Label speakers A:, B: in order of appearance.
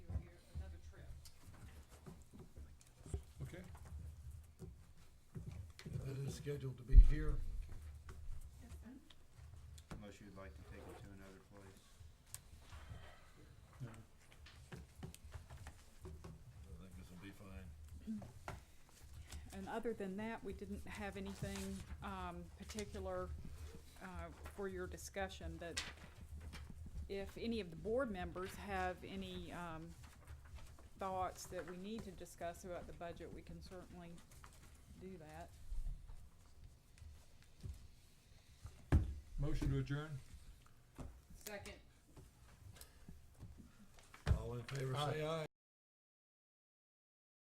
A: is scheduled to be here.
B: Unless you'd like to take it to another place.
A: I think this will be fine.
C: And other than that, we didn't have anything, um, particular, uh, for your discussion, that if any of the board members have any, um, thoughts that we need to discuss about the budget, we can certainly do that.
D: Motion to adjourn?
C: Second.
A: All in favor, say aye.